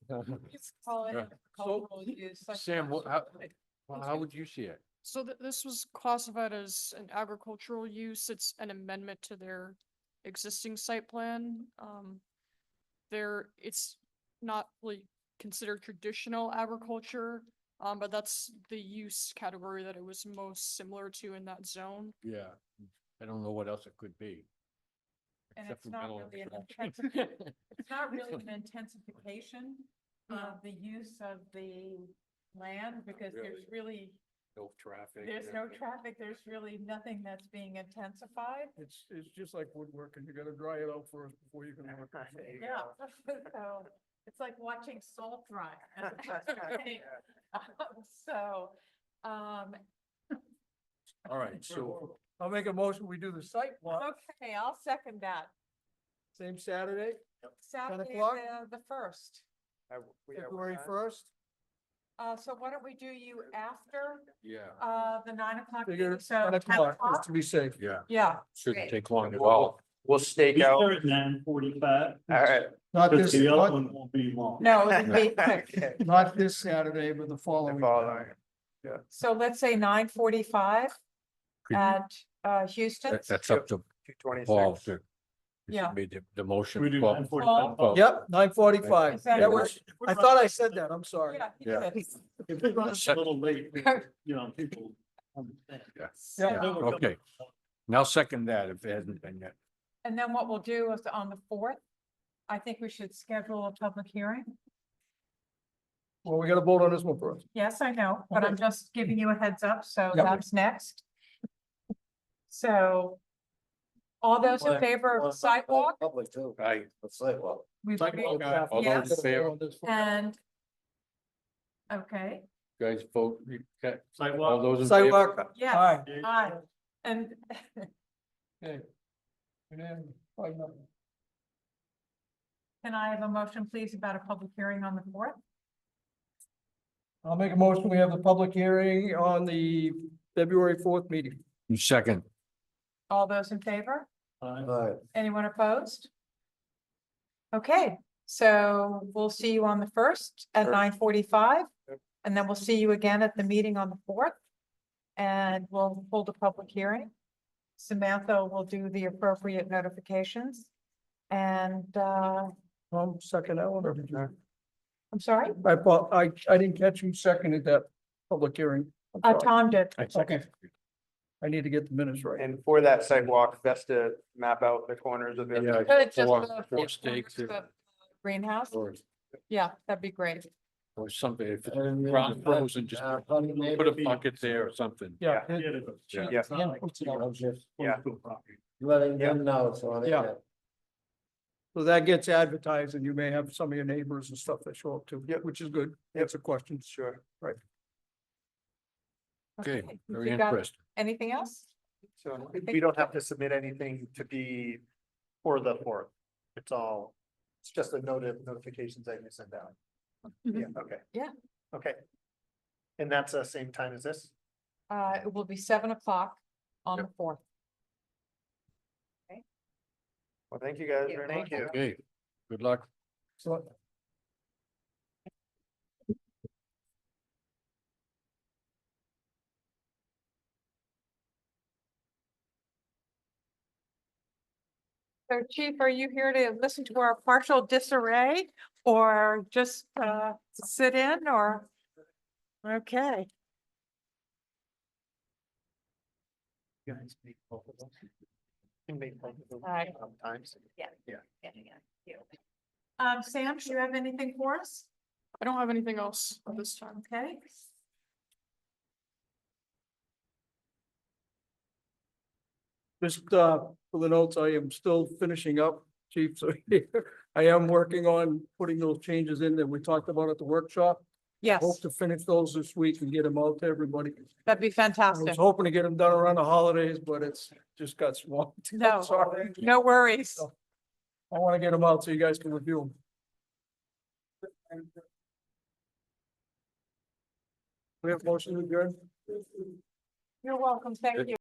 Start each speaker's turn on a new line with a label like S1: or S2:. S1: Call it
S2: Yeah. hmm,
S1: agricultural use, such
S2: Sam, what- how-
S1: as-
S2: Well, how would you see it?
S3: So th- this was classified as an agricultural use. It's an amendment to their existing site plan. Um, there, it's not really considered traditional agriculture, um, but that's the use category that it was most similar to in that zone.
S2: Yeah. I don't know what else it could be.
S1: And
S2: except
S1: it's
S2: for
S1: not
S2: metal
S1: really an
S2: extraction.
S1: It's not really an intensification
S2: Hmm.
S1: of the use of the land because there's really,
S2: No traffic.
S1: there's no traffic, there's really nothing that's being intensified.
S4: It's, it's just like woodworking, you gotta dry it out first before you can work. it.
S1: Yeah, so it's like watching salt dry. So, um,
S2: All right, so
S4: I'll make a motion, we do the site walk,
S1: okay, I'll second that.
S4: same Saturday,
S1: Saturday,
S4: o'clock?
S1: the, the first.
S4: February first.
S1: Uh, so why don't we do you after,
S2: Yeah.
S1: uh, the nine o'clock
S4: Figure
S1: meeting? So
S4: nine
S1: 10
S4: o'clock, just
S1: o'clock?
S4: to be safe.
S2: Yeah,
S1: Yeah,
S2: shouldn't
S1: Great.
S2: take long at
S5: We'll-
S2: all.
S5: We'll stake
S6: We
S5: out,
S6: start nine forty-five.
S5: all right.
S4: Not
S6: Because
S4: this,
S6: the other
S4: not,
S6: one won't be long.
S1: no, it would be quick.
S5: Okay.
S4: not this Saturday, but the
S5: The
S4: following.
S5: following.
S1: So let's say nine forty-five
S2: Could-
S1: at, uh, Houston.
S2: That- That's up to
S5: Two
S2: Paul
S5: twenty-six.
S2: to. if he
S1: Yeah.
S2: Made the, the
S6: Should we
S2: motion.
S6: do
S2: Paul-
S6: nine forty-five?
S2: Paul-
S4: Yep, nine forty-five.
S1: Is that
S4: That
S1: good?
S4: was, I thought I said that, I'm sorry.
S1: Yeah, he
S2: Yeah.
S1: did.
S6: If it runs a little late, we- you know, people understand.
S2: Yeah,
S1: So-
S2: Okay, now second that if it hasn't been yet.
S1: And then what we'll do is on the fourth, I think we should schedule a public hearing.
S4: Well, we gotta vote on this one first.
S1: Yes, I know, but I'm just giving you a heads up, so
S2: Yeah.
S1: that's next. So all those in favor of sidewalk,
S5: Public too.
S2: I,
S5: The sidewalk.
S1: we've
S4: Sidewalk
S1: agreed,
S4: traffic.
S2: all those in
S1: Yes.
S2: favor,
S1: and okay,
S2: guys vote, you got- all
S6: Sidewalk.
S2: those in
S1: uh,
S2: favor?
S4: Sidewalk,
S1: yes,
S4: aye.
S1: aye, and
S4: Okay. Unanimous, five nothing.
S1: can I have a motion, please, about a public hearing on the fourth?
S4: I'll make a motion, we have the public hearing on the February fourth meeting.
S2: You Second,
S1: All those in favor?
S6: Aye.
S5: Right.
S1: Anyone opposed? Okay, so we'll see you on the first at
S5: Sure.
S1: nine forty-five,
S5: Yep.
S1: and then we'll see you again at the meeting on the fourth. And we'll hold a public hearing. Samantha will do the appropriate notifications. And, uh,
S4: Um, second, Ellen, or did you?
S1: I'm sorry,
S4: I, apo- I, I didn't catch who seconded that public hearing. I'm
S1: uh,
S4: sorry.
S1: Tom did.
S4: Okay. I need to get the minutes right.
S5: And for that sidewalk, that's to map out the corners of it.
S2: yeah,
S1: Good, just
S2: four,
S1: the-
S2: four stakes
S1: the
S2: or,
S1: Greenhouse,
S2: or-
S1: yeah, that'd be great.
S2: or something, if it's Uh, ground frozen, just put a bucket there or something.
S4: Yeah,
S6: Yeah,
S4: it-
S6: it is.
S2: Yeah.
S6: It's not like it's on
S5: Yeah.
S6: school property.
S5: Letting them know, so.
S4: they Yeah. so that gets advertised and you may have some of your neighbors and stuff that show up too,
S5: Yep.
S4: which is good. That's a question.
S5: Sure.
S2: Okay, very
S1: You got
S2: interesting.
S1: Anything else?
S5: So
S1: I think-
S5: we don't have to submit anything to be for the fourth. It's all, it's just the notif- notifications that you send out. Yeah, okay.
S1: Mm-hmm. Yeah.
S5: Okay. And that's the same time as this?
S1: Uh, it will be seven o'clock on
S2: Yep.
S1: the fourth.
S5: Well, thank you guys
S1: Yeah,
S5: very
S1: thank
S5: much.
S1: you.
S2: Okay, good luck.
S4: So
S1: So Chief, are you here to listen to our partial disarray or just uh sit in or? Okay,
S5: You guys make both of those. You make both of those
S1: Aye.
S5: Sometimes.
S1: um, Sam, do you have anything for us?
S3: I don't have anything else at this time.
S1: Okay.
S4: Just, uh, for the notes, I am still finishing up, chief, so I am working on putting those changes in that we talked about at the workshop.
S1: Yes,
S4: Hope to finish those this week and get them out to everybody.
S1: that'd be
S4: I was
S1: fantastic.
S4: hoping to get them done around the holidays, but it's just got swamped. I'm
S1: No.
S4: Sorry.
S1: No worries.
S4: Oh. I want to get them out so you guys can review them. We have motion to adjourn?
S1: You're welcome. Thank
S2: Uh,
S1: you.